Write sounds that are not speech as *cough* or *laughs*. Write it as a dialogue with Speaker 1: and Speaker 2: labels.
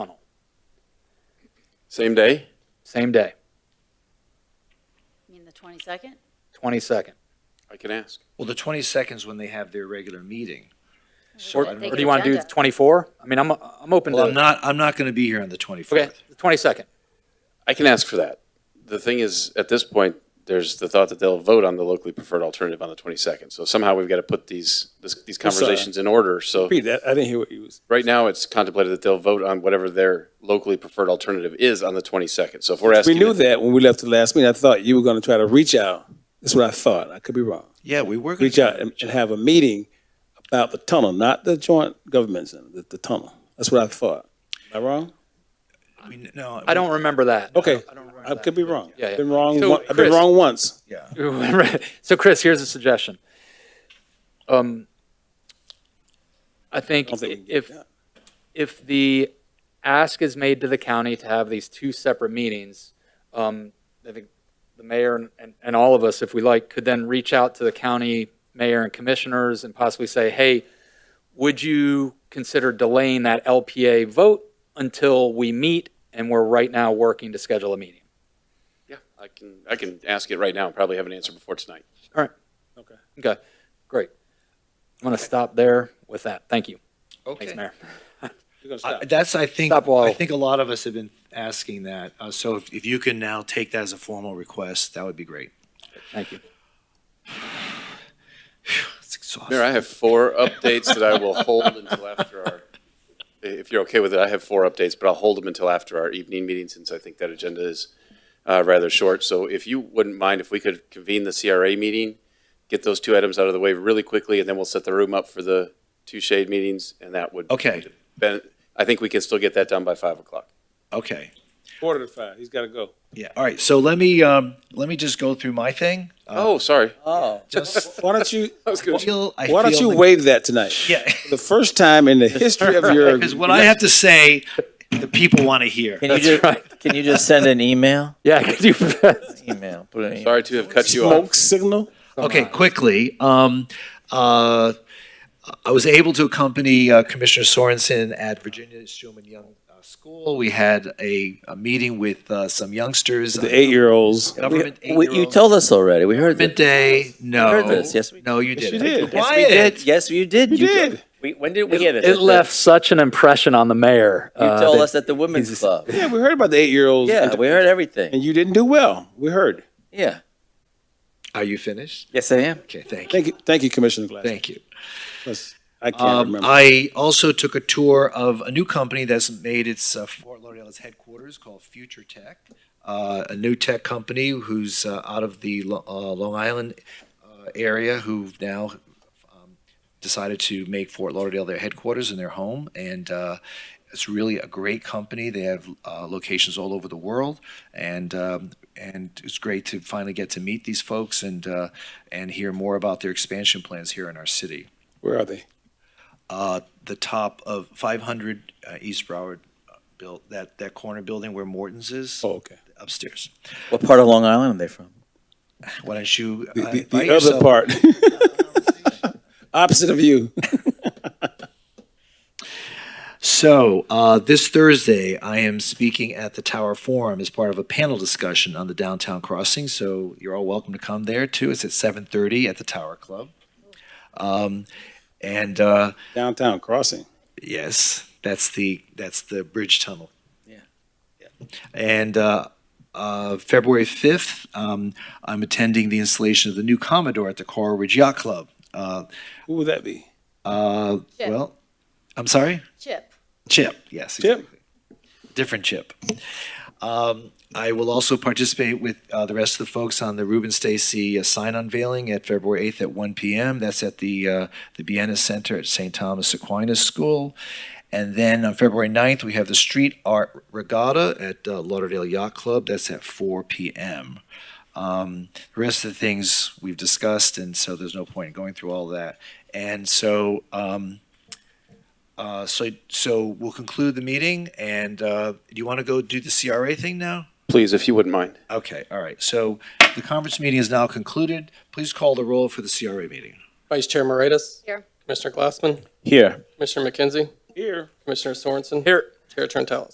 Speaker 1: Same day?
Speaker 2: Same day,
Speaker 3: You mean the 22nd?
Speaker 2: 22nd.
Speaker 1: I can ask.
Speaker 4: Well, the 22nd is when they have their regular meeting.
Speaker 2: Or
Speaker 4: So
Speaker 2: or
Speaker 4: I'm,
Speaker 3: Take
Speaker 2: do you want to do the
Speaker 3: agenda.
Speaker 2: 24? I mean, I'm, I'm open
Speaker 4: well, I'm
Speaker 2: to,
Speaker 4: not, I'm not going to be here on the 24th.
Speaker 2: okay, the 22nd.
Speaker 1: I can ask for that. The thing is, at this point, there's the thought that they'll vote on the locally preferred alternative on the 22nd. So somehow we've got to put these, this- these
Speaker 5: That's, uh,
Speaker 1: conversations in order. So
Speaker 5: Repeat that. I didn't *laughs* hear what you was.
Speaker 1: right now, it's contemplated that they'll vote on whatever their locally preferred alternative is on the 22nd. So if we're asking.
Speaker 5: We knew
Speaker 1: if-
Speaker 5: that when we left the last meeting. I thought you were going to try to reach out. That's what I thought. I could be wrong.
Speaker 4: Yeah, we were going
Speaker 5: Reach out and, and have a meeting about the tunnel, not the joint government center, the, the tunnel. That's what I thought. Am I wrong?
Speaker 4: No.
Speaker 2: I don't remember that.
Speaker 5: Okay,
Speaker 2: I don't remember
Speaker 5: I could be wrong.
Speaker 2: Yeah, yeah.
Speaker 5: I've been wrong.
Speaker 2: So,
Speaker 5: one- I've been
Speaker 2: Chris-
Speaker 5: wrong once.
Speaker 4: Yeah.
Speaker 2: Right. *laughs* So Chris, here's a suggestion. Um, I
Speaker 5: I
Speaker 2: think
Speaker 5: don't think we can get
Speaker 2: if,
Speaker 5: that.
Speaker 2: if the ask is made to the county to have these two separate meetings, um, I think the mayor and- and, and all of us, if we like, could then reach out to the county mayor and commissioners and possibly say, hey, would you consider delaying that LPA vote until we meet and we're right now working to schedule a meeting?
Speaker 1: Yeah, I can, I can ask it right now. and Probably have an answer before tonight.
Speaker 2: Okay, great. I'm going to stop there with that. Thank you. Thanks, Mayor.
Speaker 5: You're gonna stop.
Speaker 4: I- That's, I think,
Speaker 2: Stop wall.
Speaker 4: I think a lot of us have been asking that. Uh, So if if you can now take that as a formal request, that would be great.
Speaker 2: Thank you.
Speaker 4: It's exhausting.
Speaker 1: Mayor, I have four updates that I will hold until after our, if you're okay with it, I have four updates, but I'll hold them until after our evening meeting since I think that agenda is uh, rather short. So if you wouldn't mind, if we could convene the CRA meeting, get those two items out of the way really quickly, and then we'll set the room up for the two shade meetings, and that would.
Speaker 4: Okay.
Speaker 1: Ben, I think we can still get that done by five o'clock.
Speaker 4: Okay.
Speaker 5: Quarter to five. He's got to go.
Speaker 4: Yeah, all right, so let me, um, let me just go through my thing. Uh,
Speaker 1: Oh, sorry.
Speaker 5: Oh,
Speaker 2: *laughs*
Speaker 4: Just-
Speaker 5: why don't you?
Speaker 1: I was gonna-
Speaker 5: Why don't you waive that tonight? *laughs*
Speaker 4: Yeah.
Speaker 5: The first time in the history of your.
Speaker 4: Because what I have to say, the people want to hear.
Speaker 6: Can you just, can you just send an email?
Speaker 2: Yeah, could you, *laughs*
Speaker 6: Email. Put an email.
Speaker 1: Sorry to have cut you off.
Speaker 5: Smoke signal?
Speaker 4: Okay, quickly. Um, uh, I was able to accompany uh, Commissioner Sorensen at Virginia Schumann Young uh, School. We had a, a meeting with uh, some youngsters. uh,
Speaker 5: The eight-year-olds.
Speaker 4: Government
Speaker 6: We- You
Speaker 4: eight-year-olds.
Speaker 6: told us already. We heard
Speaker 4: Government
Speaker 6: that.
Speaker 4: Day, no.
Speaker 6: heard this, yes, we
Speaker 4: No, you
Speaker 5: Yes, you
Speaker 4: didn't.
Speaker 5: did.
Speaker 6: Yes, we did. Yes, you did. You
Speaker 5: did.
Speaker 6: We, when did we get it?
Speaker 2: it left such an impression on the mayor.
Speaker 6: You
Speaker 2: uh,
Speaker 6: told
Speaker 2: that-
Speaker 6: us at the women's club.
Speaker 5: Yeah, we heard about the eight-year-olds.
Speaker 6: Yeah,
Speaker 5: and-
Speaker 6: we heard everything.
Speaker 5: And you didn't do well. We heard.
Speaker 6: Yeah.
Speaker 4: Are you finished?
Speaker 6: Yes, I am.
Speaker 4: Okay, thank you,
Speaker 5: Thank you, thank you, Commissioner Glass.
Speaker 4: thank you.
Speaker 5: I can't
Speaker 4: Um,
Speaker 5: remember.
Speaker 4: I also took a tour of a new company that's made its uh, Fort Lauderdale's headquarters called Future Tech, uh, a new tech company who's uh, out of the Lo- uh, Long Island uh, area who've now um, decided to make Fort Lauderdale their headquarters and their home. And uh, it's really a great company. They have uh, locations all over the world, and um, and it's great to finally get to meet these folks and uh, and hear more about their expansion plans here in our city
Speaker 5: Where are they?
Speaker 4: uh, the top of 500 uh, East Broward uh, built that that corner building where Morton's is
Speaker 5: Oh, okay.
Speaker 4: upstairs.
Speaker 6: What part of Long Island are they from?
Speaker 4: Why don't you uh,
Speaker 5: The, the- the
Speaker 4: invite
Speaker 5: other
Speaker 4: yourself-
Speaker 5: part.
Speaker 4: *laughs*
Speaker 5: Opposite of you.
Speaker 4: So uh, this Thursday, I am speaking at the Tower Forum as part of a panel discussion on the downtown crossing. So you're all welcome to come there too. It's at 7:30 at the Tower Club. Um, and uh,
Speaker 5: Downtown crossing.
Speaker 4: yes, that's the that's the bridge tunnel.
Speaker 6: Yeah.
Speaker 4: And uh, uh, February 5th, um, I'm attending the installation of the new Commodore at the Coral Ridge Yacht Club. Uh,
Speaker 5: Who would that be?
Speaker 4: uh,
Speaker 3: Chip.
Speaker 4: Well, I'm sorry?
Speaker 3: Chip.
Speaker 4: Chip, yes.
Speaker 5: Chip.
Speaker 4: exactly. Different chip. Um, I will also participate with uh, the rest of the folks on the Ruben Stacy uh, sign unveiling at February 8th at 1 p.m. That's at the, uh, the Vienna Center at St. Thomas Aquinas School. And then on February 9th, we have the Street Art Regatta at uh, Lauderdale Yacht Club. That's at 4 p.m. Um, the rest of the things we've discussed, and so there's no point in going through all that. And so, um, uh, so, so we'll conclude the meeting, and uh, do you want to go do the CRA thing now?
Speaker 1: Please, if you wouldn't mind.
Speaker 4: Okay, all right. So the conference meeting is now concluded. Please call the roll for the CRA meeting.
Speaker 7: Vice Chair Moritas.
Speaker 3: Here.
Speaker 7: Commissioner Glassman.
Speaker 6: Here.
Speaker 7: Commissioner McKenzie.
Speaker 5: Here.
Speaker 7: Commissioner Sorensen.
Speaker 2: Here.
Speaker 7: Chair Trentalis.